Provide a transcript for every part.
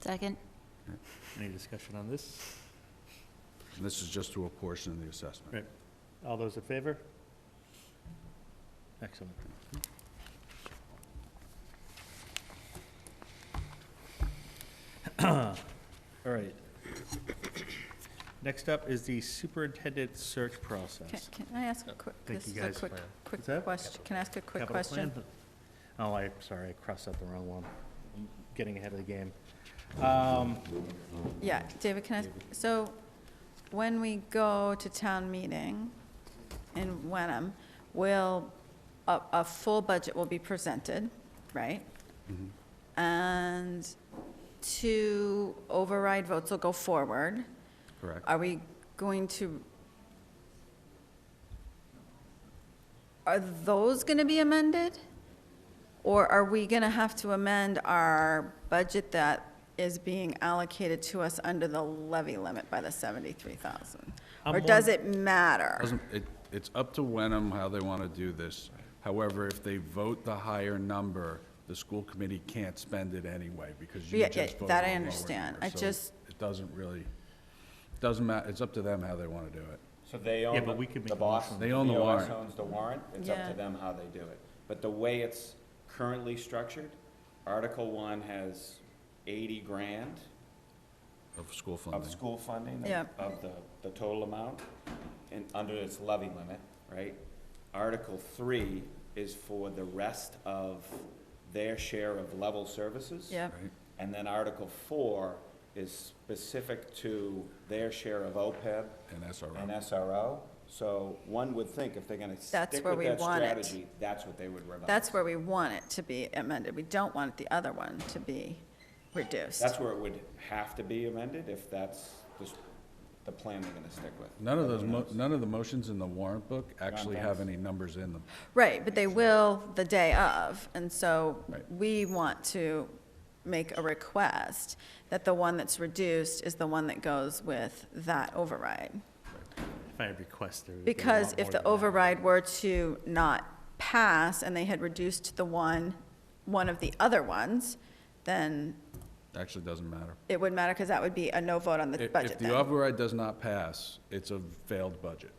Second? Any discussion on this? And this is just to a portion of the assessment. Right. All those in favor? Excellent. All right. Next up is the superintendent search Can process. can I ask a quick, Thank this you is a guys. quick, What's that? quick question, can I ask a quick Capital question? plan? Oh, I, sorry, I crossed out the wrong one. I'm getting ahead of the game. Um, Yeah, David, can I, ask- so when we go to town meeting in Wenham, will, a, a full budget will be presented, right? And two override votes will go forward. Correct? Are we going to, are those going to be amended? Or are we going to have to amend our budget that is being allocated to us under the levy limit by the 73,000? I'm Or does more- it matter? Doesn't- it- It's up to Wenham how they want to do this. However, if they vote the higher number, the school committee can't spend it anyway because you Yeah, just yeah, voted that I a lower understand. number. I So just- It doesn't really, doesn't matter, it's up to them how they want to do it. So they Yeah, but own we could make the a boss. motion. They own the VOS warrant. owns the warrant, it's up Yeah. to them how they do it. But the way it's currently structured, Article One has eighty grand Of school of funding. school funding, of- Yeah. of the, the total amount, and under its levy limit, right? Article Three is for the rest of their share of level services. Yep, right? And then Article Four is specific to their share of E OPEB And that's all an right. SRO, so one would think if they're gonna stick That's with where we that want it. strategy, that's what they would revise. that's where we want it to be amended. We don't want the other one to be reduced. That's where it would have to be amended, if that's the, s- the plan they're gonna stick with. None of those, Everyone mo- else. none of the motions in the warrant book actually have thanks. any numbers in them. Right, but they will the day of, and so Right. we want to make a request that the one that's reduced is the one that goes with that override. If I request there. would be a Because lot if more the than that. override were to not pass and they had reduced the one, one of the other ones, then Actually, doesn't matter. it wouldn't matter because that would be a no vote on the If- budget If the then. override does not pass, it's a failed budget.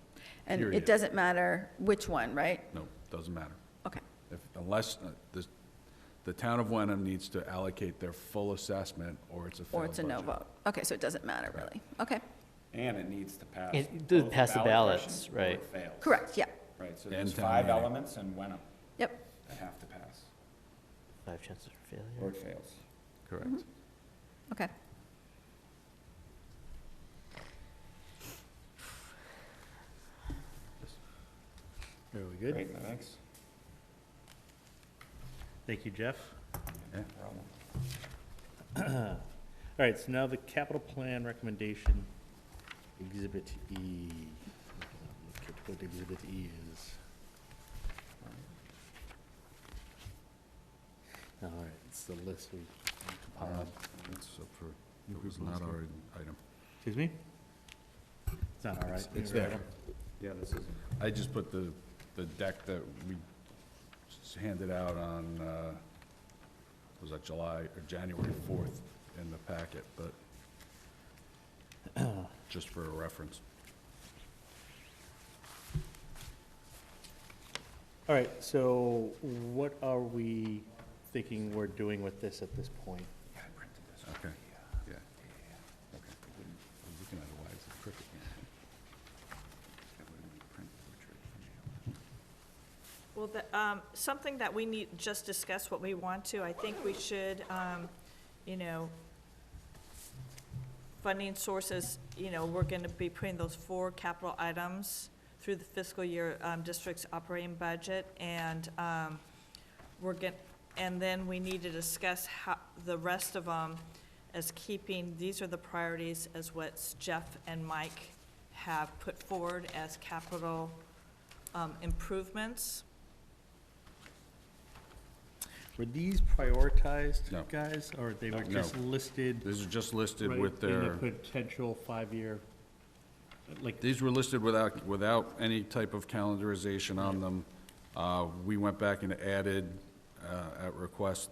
And period. it doesn't matter which one, right? No, doesn't matter. Okay, If, unless, uh, the, the town of Wenham needs to allocate their full assessment, or it's a failed or it's a no budget. vote. Okay, so it doesn't matter really. Okay, And it needs to pass. It does both pass the ballot ballots, questions or right. it fails. correct, yeah, Right, so And there's town five meeting. elements and Wenham yep. that have to pass, Five chances for or failure. it fails. Correct. Mm-hmm. Okay. Are we good? Great, thanks. Thank you, Jeff. Yeah. Problem. All right, so now the capital plan recommendation, Exhibit E. Look at what Exhibit E is. All right, it's the list we compiled. It's Uh, up for, it was not our item. Excuse me? It's not all right. It's You're there. right. Yeah, this is. I just put the, the deck that we s- handed out on, uh, was that July, or January fourth in the packet, but just for a reference. All right, so what are we thinking we're doing with this at this point? Okay, uh, yeah. Okay. I'm looking at it, why is it crooked? Well, the, um, something that we need, just discuss what we want to, I think we should, um, you know, funding sources, you know, we're gonna be putting those four capital items through the fiscal year, um, district's operating budget, and, um, we're get, and then we need to discuss how, the rest of them as keeping, these are the priorities as what Jeff and Mike have put forward as capital, um, improvements. Were these prioritized, No. guys, or they were No. just listed? These are just listed right, with In their. the potential five-year, like, These were listed without, without any type of calendarization on them. Uh, We went back and added, uh, at request,